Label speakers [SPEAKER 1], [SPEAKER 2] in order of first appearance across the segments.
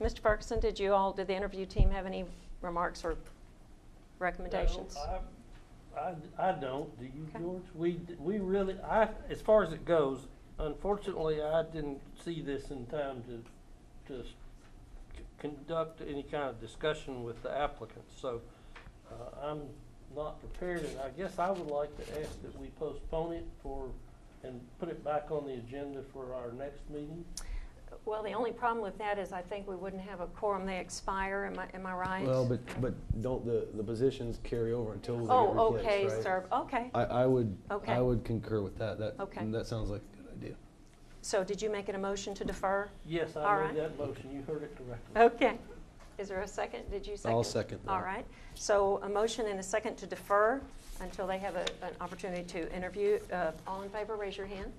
[SPEAKER 1] Mr. Ferguson, did you all, did the interview team have any remarks or recommendations?
[SPEAKER 2] No, I, I, I don't, do you,
[SPEAKER 1] Okay.
[SPEAKER 2] George? We, we really, I, as far as it goes, unfortunately, I didn't see this in time to, to s- c- conduct any kind of discussion with the applicants, so, uh, I'm not prepared, and I guess I would like to ask that we postpone it for, and put it back on the agenda for our next meeting.
[SPEAKER 1] Well, the only problem with that is I think we wouldn't have a quorum. They expire, am I, am I right?
[SPEAKER 3] Well, but, but don't the, the positions carry over until they get
[SPEAKER 1] Oh,
[SPEAKER 3] replaced,
[SPEAKER 1] okay,
[SPEAKER 3] right?
[SPEAKER 1] sir, okay.
[SPEAKER 3] I, I would,
[SPEAKER 1] Okay.
[SPEAKER 3] I would concur with that. That,
[SPEAKER 1] Okay.
[SPEAKER 3] that sounds like a good idea.
[SPEAKER 1] So did you make it a motion to defer?
[SPEAKER 2] Yes,
[SPEAKER 1] All
[SPEAKER 2] I
[SPEAKER 1] right. Oh.
[SPEAKER 2] made that motion, you heard it correctly.
[SPEAKER 1] Okay. Is there a second? Did you second?
[SPEAKER 3] I'll second that.
[SPEAKER 1] All right. So a motion and a second to defer until they have a, an opportunity to interview. Uh, all in favor, raise your hand.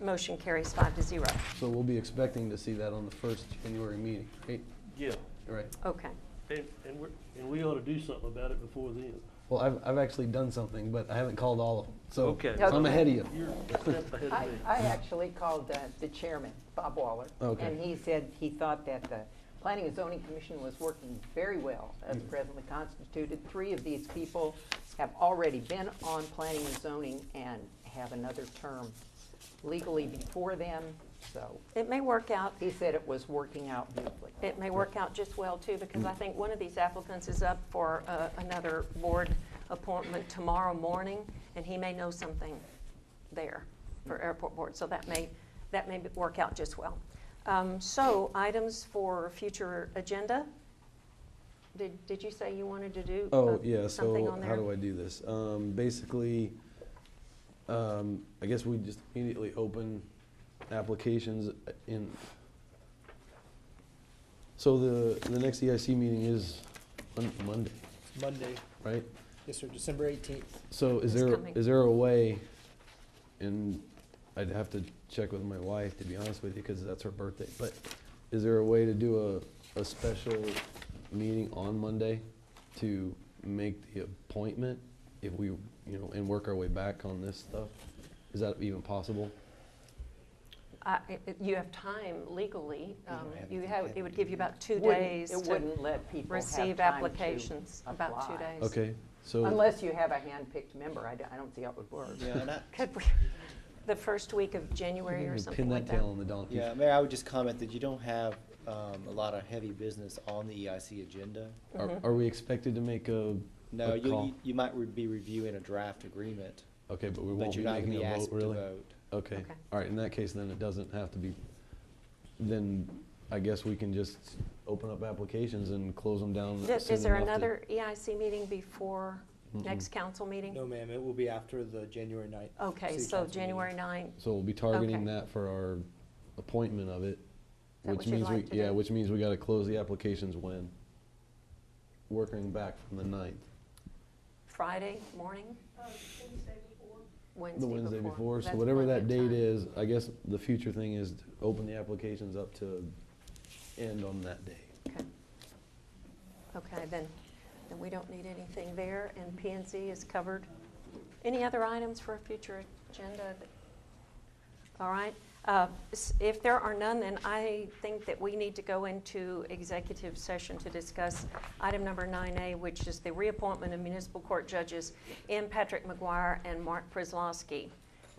[SPEAKER 1] Motion carries five to zero.
[SPEAKER 3] So we'll be expecting to see that on the first January meeting, right?
[SPEAKER 2] Yeah,
[SPEAKER 3] Right.
[SPEAKER 1] Okay.
[SPEAKER 2] and, and we're, and we ought to do something about it before then.
[SPEAKER 3] Well, I've, I've actually done something, but I haven't called all of them. So
[SPEAKER 2] Okay.
[SPEAKER 3] so I'm ahead of you.
[SPEAKER 2] You're a step ahead
[SPEAKER 4] I,
[SPEAKER 2] of me.
[SPEAKER 4] I actually called uh, the chairman, Bob Waller.
[SPEAKER 3] Okay.
[SPEAKER 4] And he said he thought that the Planning and Zoning Commission was working very well as presently constituted. Three of these people have already been on planning and zoning and have another term legally before them. So
[SPEAKER 1] It may work out
[SPEAKER 4] he said it was working out beautifully.
[SPEAKER 1] it may work out just well too, because I think one of these applicants is up for uh, another board appointment tomorrow morning, and he may know something there for airport board, so that may, that may work out just well. Um, So items for future agenda, did, did you say you wanted to do? uh,
[SPEAKER 3] Oh, yeah,
[SPEAKER 1] something
[SPEAKER 3] so
[SPEAKER 1] on
[SPEAKER 3] how
[SPEAKER 1] there?
[SPEAKER 3] do I do this? Um, basically, um, I guess we just immediately open applications in. So the, the next EIC meeting is Mon- Monday,
[SPEAKER 5] Monday,
[SPEAKER 3] right?
[SPEAKER 5] yes, sir, December eighteenth.
[SPEAKER 3] So is
[SPEAKER 1] It's
[SPEAKER 3] there,
[SPEAKER 1] coming.
[SPEAKER 3] is there a way, and I'd have to check with my wife, to be honest with you, because that's her birthday, but is there a way to do a, a special meeting on Monday to make the appointment if we, you know, and work our way back on this stuff? Is that even possible?
[SPEAKER 1] I- it- it- You have time legally, um,
[SPEAKER 5] have
[SPEAKER 1] you
[SPEAKER 5] to-
[SPEAKER 1] have,
[SPEAKER 5] have
[SPEAKER 1] it
[SPEAKER 5] to
[SPEAKER 1] would
[SPEAKER 5] do
[SPEAKER 1] give you about two
[SPEAKER 4] Wouldn't-
[SPEAKER 1] days
[SPEAKER 4] It
[SPEAKER 1] to
[SPEAKER 4] wouldn't let people have
[SPEAKER 1] receive
[SPEAKER 4] time to
[SPEAKER 1] applications, about two
[SPEAKER 4] apply.
[SPEAKER 1] days.
[SPEAKER 3] Okay, so,
[SPEAKER 4] Unless you have a handpicked member, I don't, I don't see how it would work.
[SPEAKER 5] Yeah, and I,
[SPEAKER 1] Could we, the first week of January or something
[SPEAKER 3] pin
[SPEAKER 1] like
[SPEAKER 3] that
[SPEAKER 1] that?
[SPEAKER 3] tail on the donkey.
[SPEAKER 5] yeah, Mayor, I would just comment that you don't have, um, a lot of heavy business on the EIC agenda.
[SPEAKER 3] Are,
[SPEAKER 1] Mm-hmm.
[SPEAKER 3] are we expected to make a,
[SPEAKER 5] No,
[SPEAKER 3] A call.
[SPEAKER 5] you, you might re- be reviewing a draft agreement,
[SPEAKER 3] okay, but we won't
[SPEAKER 5] but
[SPEAKER 3] be
[SPEAKER 5] you're not gonna
[SPEAKER 3] making
[SPEAKER 5] be
[SPEAKER 3] a vote,
[SPEAKER 5] asked to
[SPEAKER 3] really?
[SPEAKER 5] vote.
[SPEAKER 3] Okay,
[SPEAKER 1] Okay.
[SPEAKER 3] all right, in that case, then it doesn't have to be, then I guess we can just open up applications and close them down.
[SPEAKER 1] Th- Is
[SPEAKER 3] soon
[SPEAKER 1] there
[SPEAKER 3] enough to-
[SPEAKER 1] another EIC meeting before next council meeting?
[SPEAKER 6] No, ma'am, it will be after the January ninth.
[SPEAKER 1] Okay,
[SPEAKER 6] city
[SPEAKER 1] so
[SPEAKER 6] council meeting.
[SPEAKER 1] January 9th,
[SPEAKER 3] So we'll be
[SPEAKER 1] Okay.
[SPEAKER 3] targeting that for our appointment of it,
[SPEAKER 1] that
[SPEAKER 3] which
[SPEAKER 1] what you'd
[SPEAKER 3] means we,
[SPEAKER 1] like to
[SPEAKER 3] yeah,
[SPEAKER 1] do?
[SPEAKER 3] which means we gotta close the applications when? Working back from the ninth,
[SPEAKER 1] Friday morning? Wednesday
[SPEAKER 3] the
[SPEAKER 1] before.
[SPEAKER 3] Wednesday before, so
[SPEAKER 1] That's
[SPEAKER 3] whatever
[SPEAKER 1] plenty
[SPEAKER 3] that
[SPEAKER 1] of
[SPEAKER 3] date
[SPEAKER 1] time.
[SPEAKER 3] is, I guess the future thing is to open the applications up to end on that day.
[SPEAKER 1] Okay. Okay, then, then we don't need anything there, and PNC is covered. Any other items for a future agenda? that- All right, uh, s- if there are none, then I think that we need to go into executive session to discuss item number 9A, which is the reappointment of municipal court judges M. Patrick McGuire and Mark Prislowski.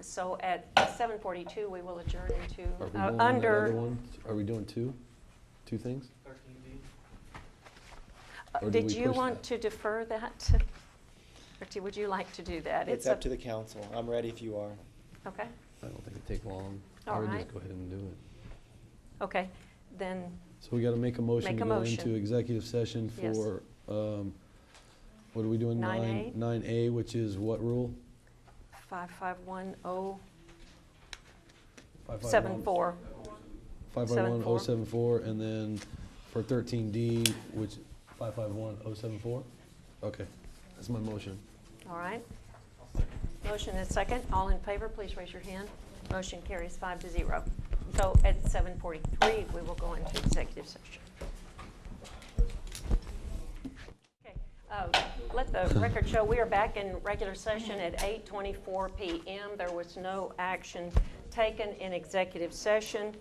[SPEAKER 1] So at 7:42, we will adjourn into,
[SPEAKER 3] Are we
[SPEAKER 1] uh,
[SPEAKER 3] going on that
[SPEAKER 1] under...
[SPEAKER 3] other one? Are we doing two, two things?
[SPEAKER 1] Uh,
[SPEAKER 3] Or do
[SPEAKER 1] Did
[SPEAKER 3] we
[SPEAKER 1] you
[SPEAKER 3] push
[SPEAKER 1] want
[SPEAKER 3] that?
[SPEAKER 1] to defer that? Or do- would you like to do that?
[SPEAKER 5] It's up to the council. I'm ready if you are.
[SPEAKER 1] Okay,
[SPEAKER 3] I don't think it'd take long.
[SPEAKER 1] All
[SPEAKER 3] I would
[SPEAKER 1] right.
[SPEAKER 3] just go ahead and do it.
[SPEAKER 1] okay, then,
[SPEAKER 3] So we gotta make a motion
[SPEAKER 1] Make
[SPEAKER 3] to
[SPEAKER 1] a
[SPEAKER 3] go
[SPEAKER 1] motion.
[SPEAKER 3] into executive session
[SPEAKER 1] Yes.
[SPEAKER 3] for, um, what are we doing?
[SPEAKER 1] 9A?
[SPEAKER 3] Nine A, which is what rule?
[SPEAKER 1] 551074.
[SPEAKER 3] Five five one- oh. Five five one oh seven four, and then for thirteen D, which, five five one oh seven four? Okay, that's my motion.
[SPEAKER 1] All right. Motion is second. All in favor, please raise your hand. Motion carries five to zero. So at 7:43, we will go into executive session. Okay. uh, Let the record show, we are back in regular session at 8:24 PM. There was no action taken in executive session.